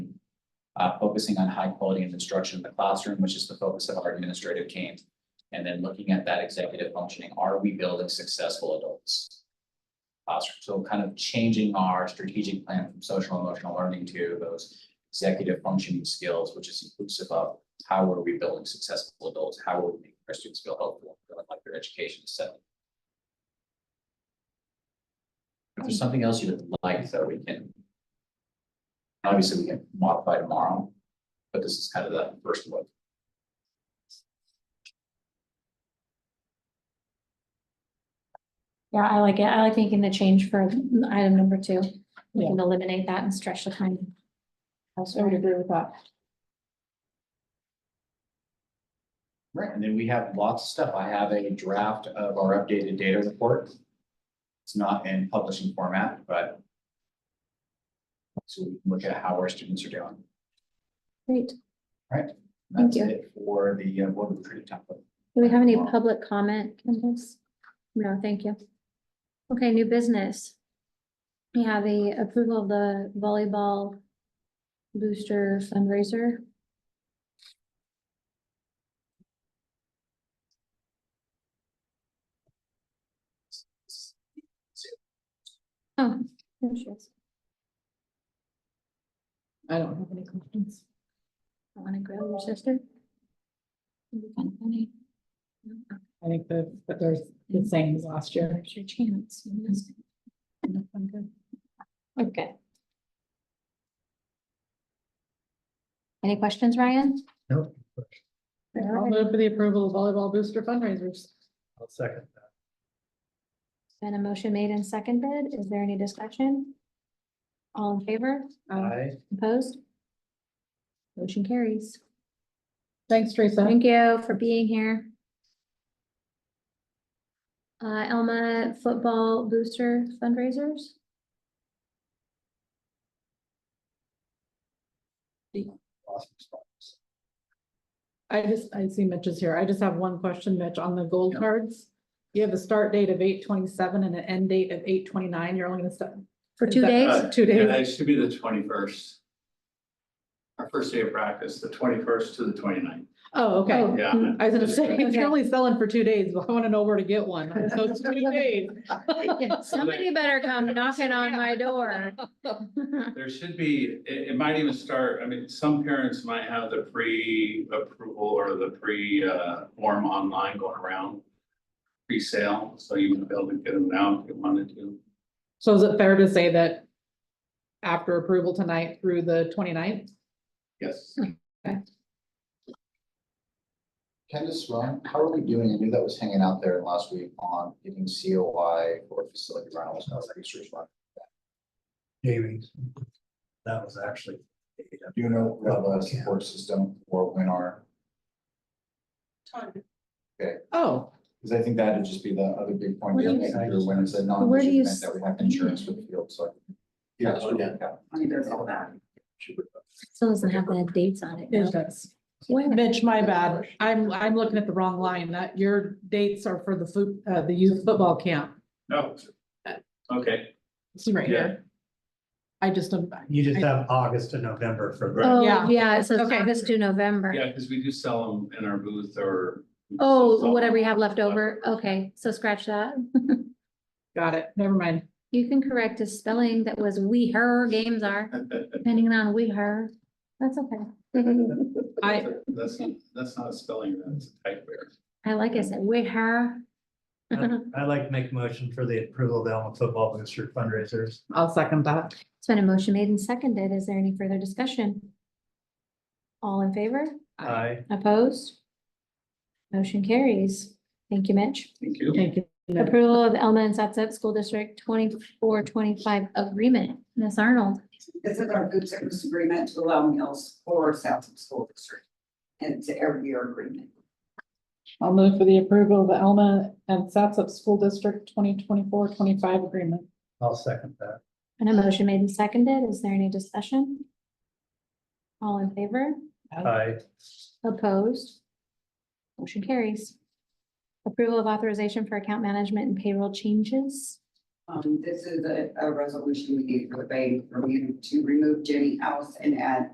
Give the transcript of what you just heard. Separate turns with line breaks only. uh, focusing on high quality and instruction in the classroom, which is the focus of our administrative team. And then looking at that executive functioning, are we building successful adults? Classroom, so kind of changing our strategic plan from social emotional learning to those executive functioning skills, which is inclusive of how are we building successful adults? How are we making our students feel helpful, feeling like their education is set? If there's something else you would like, though, we can. Obviously, we can modify tomorrow, but this is kind of the first look.
Yeah, I like it. I like making the change for item number two. We can eliminate that and stretch the time.
I would agree with that.
Right. And then we have lots of stuff. I have a draft of our updated data report. It's not in publishing format, but. So we can look at how our students are doing.
Great.
That's
Thank
it for the uh, board retreat template.
Do we have any public comment, Candace? No, thank you. Okay, new business. We have the approval of the volleyball booster fundraiser. Oh, there she is.
I don't have any questions.
I want to grab your sister. It'd be kinda funny.
I think that, that there's the same as last year.
There's your chance. You missed it. Okay. Any questions, Ryan?
No.
I'll move for the approval of volleyball booster fundraisers.
I'll second that.
Been a motion made and seconded. Is there any discussion? All in favor?
Uh,
I,
Opposed? Motion carries.
Thanks, Teresa.
Thank you for being here. Uh, Elma Football Booster fundraisers.
awesome spots.
I just, I see Mitch is here. I just have one question, Mitch, on the gold
Yeah.
cards. You have a start date of eight twenty-seven and an end date of eight twenty-nine. You're only gonna set.
For
is
two
that-
days?
Uh,
Two
Yeah,
days.
that should be the twenty-first. Our first day of practice, the twenty-first to the 29th.
Oh, okay.
Oh,
Yeah.
mm,
I was gonna say, if
Okay.
you're only selling for two days, well, I wanna know where to get one. So it's two days.
yeah, Somebody better come knocking on my door.
There should be, it, it might even start, I mean, some parents might have the pre-approval or the pre, uh, form online going around. Pre-sale, so you might be able to get them now if you wanted to.
So is it fair to say that after approval tonight through the 29th?
Yes.
Candace, Ryan, how are we doing? I knew that was hanging out there last week on getting COI for facility rentals. I was like, "Sure, it's fine."
Jamie's. That was actually.
Do you know what the support system or when our,
Oh,
because I think that'd just be the other big point.
Where do
we're
you-
making here When it's a
Where do
non-issue
you
event
s-
that we have insurance for the field, so. Yeah. that's what we have.
He does all that.
Still doesn't have the dates on it. though.
it does.
Where?
Mitch, my bad. I'm, I'm looking at the wrong line. That your dates are for the food, uh, the youth football camp.
No.
Uh,
Okay,
It's right here. I just, don't-
You just have August and November for.
Right.
Oh,
Yeah.
yeah, it says
Okay.
August to November.
yeah, because we do sell them in our booth or.
Oh, whatever you have left over. Okay, so scratch that.
got it. Never mind.
You can correct a spelling that was we her games are, depending on we her. That's okay.
I,
That's, not- that's not a spelling, that's a type error.
I like I said, we her. Oh.
I'd like to make a motion for the approval of the Alma Football Booster fundraisers.
I'll second that.
It's been a motion made and seconded. Is there any further discussion? All in favor?
I,
Opposed? Motion carries. Thank you, Mitch.
Thank you.
Thank you. Mitch.
Approval of Elma and Satsat School District twenty-four, twenty-five agreement. Ms. Arnold,
This is our food service agreement to allow meals for South School District. And it's an every year agreement.
I'll move for the approval of the Alma and Satsop School District 2024-25 agreement.
I'll second that.
and a motion made and seconded. Is there any discussion? All in favor?
I,
Opposed? Motion carries. Approval of authorization for account management and payroll changes.
Um, this is a, a resolution we need for the bank for you to remove Jenny House and add